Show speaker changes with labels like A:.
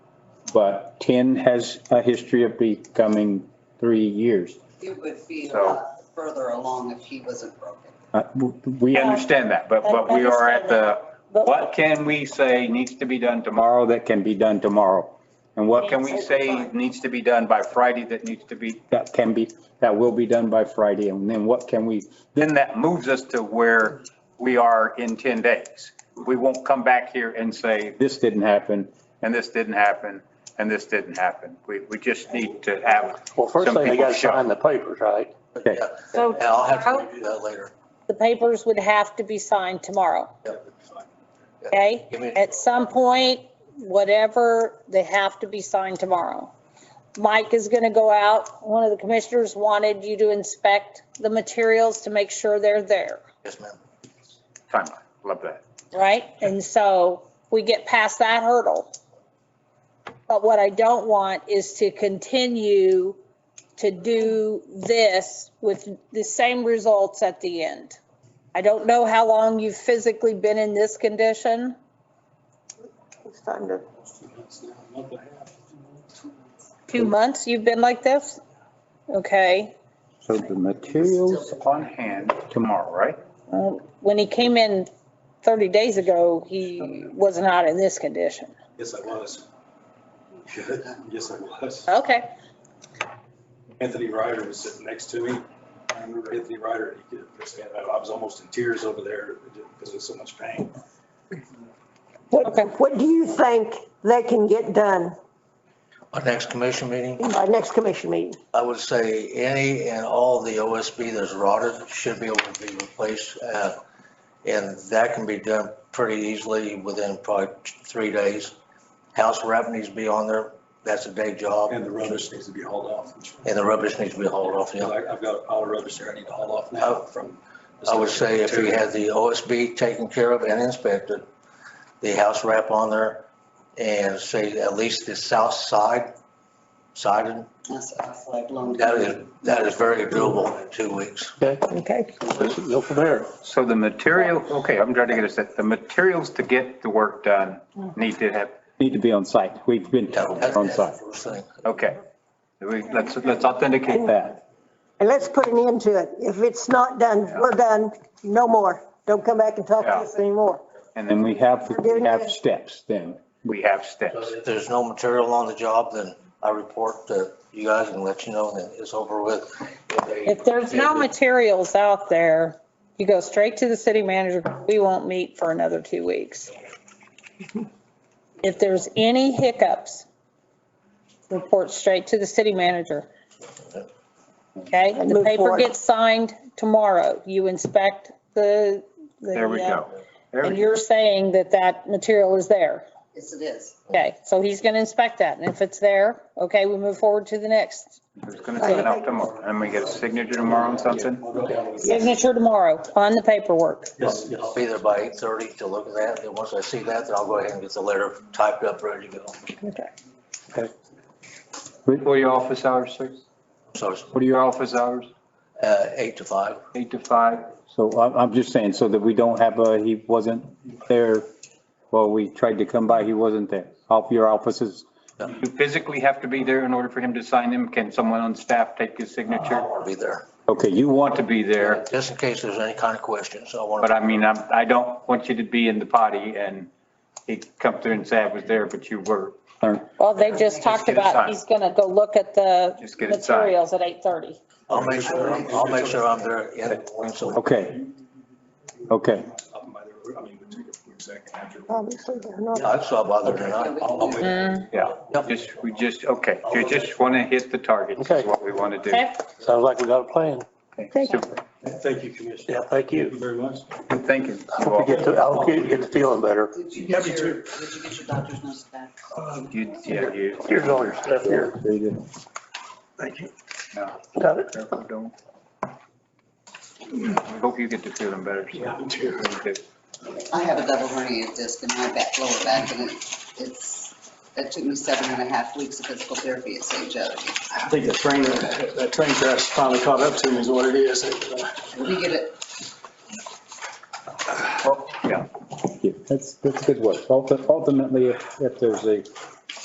A: but 10 has a history of becoming three years.
B: It would be a
C: So-
B: lot further along if he wasn't broken.
A: Uh, w- We
C: We
A: understand,
C: understand that, but, but we are at the,
D: But-
C: what can we say needs to be done tomorrow?
A: tomorrow that can be done tomorrow,
C: And what can we say needs to be done by Friday that needs to be,
A: that can be, that will be done by Friday, and then what can we,
C: then that moves us to where we are in 10 days. We won't come back here and say,
A: this didn't happen.
C: and this didn't happen, and this didn't happen. We, we just need to have,
E: Well, first
C: Some
E: thing, they
C: people
E: gotta
C: shut.
E: sign the papers, right?
A: Okay.
F: Yeah,
D: So
F: and I'll have
D: tomorrow,
F: to do that later.
D: the papers would have to be signed tomorrow,
F: Yep. Yeah.
D: okay?
F: Give me-
D: At some point, whatever, they have to be signed tomorrow. Mike is going to go out. One of the commissioners wanted you to inspect the materials to make sure they're there,
F: Yes, ma'am.
C: timeline, love that.
D: right? And so we get past that hurdle. But what I don't want is to continue to do this with the same results at the end. I don't know how long you've physically been in this condition.
G: It's time to,
D: Two months you've been like this? Okay.
A: So the materials,
C: On hand tomorrow, right?
D: Well, When he came in 30 days ago, he was not in this condition.
H: Yes, I was. Yes, I was.
D: Okay.
H: Anthony Ryder was sitting next to me. I remember Anthony Ryder, he could, I was almost in tears over there because of so much pain.
D: Okay.
G: what, what do you think they can get done
F: Our next commission meeting,
G: by next commission meeting?
F: I would say any and all the OSB that's rotted should be able to be replaced. uh, And that can be done pretty easily within probably three days. House wrap needs to be on there. That's a day job.
H: And the rubbish needs to be hauled off.
F: And the rubbish needs to be hauled off, yeah. Oh.
H: I- I've got all the rubbish there I need to haul off now from.
F: I would say if we had the OSB taken care of and inspected, the house wrap on there, and say at least the south side, sided,
B: That's that's like long.
F: that is, that is very doable in two weeks.
E: Okay,
G: Okay,
E: let's go from there.
C: So the material, okay, I'm trying to get a set, the materials to get the work done need to have,
A: need to be on site. We've been told
F: That-
A: they're on
F: That's the
A: site.
F: first thing.
C: okay. We, let's, let's authenticate that.
G: and let's put an end to it. If it's not done, we're done, no more. Don't come back and talk to us anymore.
A: And
C: And then
A: we have, we have steps then.
C: we have steps.
F: If there's no material on the job, then I report to you guys and let you know that it's over with.
D: If there's no materials out there, you go straight to the city manager. We won't meet for another two weeks. If there's any hiccups, report straight to the city manager. Okay?
G: And
D: The
G: move
D: paper
G: forward.
D: gets signed tomorrow. You inspect the. the,
C: There we
D: uh,
C: go. There
D: And
C: we go.
D: you're saying that that material is there.
B: Yes, it is.
D: Okay, so he's going to inspect that, and if it's there, okay, we move forward to the next.
C: It's gonna sign off tomorrow. And we get a signature tomorrow on something?
D: Signature tomorrow on the paperwork.
H: Yes, yes.
F: I'll be there by 8:30 to look at that, and once I see that, then I'll go ahead and get the letter typed up, ready to go.
C: What are your office hours, sir?
F: So it's
C: What are your office hours?
F: uh, 8 to 5.
C: Eight to five?
A: So I'm, I'm just saying, so that we don't have a, he wasn't there, well, we tried to come by, he wasn't there. All your offices,
C: You physically have to be there in order for him to sign them? Can someone on staff take his signature?
F: I'll be there.
A: okay, you want
C: Want to be there,
F: Just in case there's any kind of questions, I want
C: but
F: to,
C: I mean, I'm, I don't want you to be in the potty and he come through and say I was there, but you were.
D: Well, they just talked
C: get it
D: about,
C: signed.
D: he's going to go look at the
C: Just get it signed.
D: materials at 8:30.
F: I'll make sure, I'm- I'll make sure I'm there in the morning, so
A: Okay. Okay,
H: Up by the- I mean, we took a quick second after.
G: Obviously, they're not.
F: I saw bother tonight.
H: I'll- I'll wait.
C: Yeah, just, we just, okay, you just want to hit the target is
E: Okay.
C: what we want to do.
D: Okay?
E: Sounds like we got a plan.
G: Thank you.
H: Thank you, Commissioner.
E: Yeah, thank
H: Thank you
E: you.
H: very much.
C: Thank you.
E: I hope you get, the- I hope you get the feeling better.
B: Did you get
H: Yeah, me
B: your, did you get your doctor's notes back?
C: You, yeah, you,
E: Here's all your stuff here.
A: there you go.
E: Thank you.
C: no,
E: Got it?
C: careful, don't. We Hope you get to feeling better.
H: Yeah, too.
B: I have a double hernia disc in my back, lower back, and it- it's, it took me seven and a half weeks of physical therapy at St. Joe's.
H: I think the train, that train crash finally caught up to me is what it uh, is.
B: We get it,
C: Yeah,
A: Yeah, that's, that's good work. Ulti- Ultimately, if, if there's a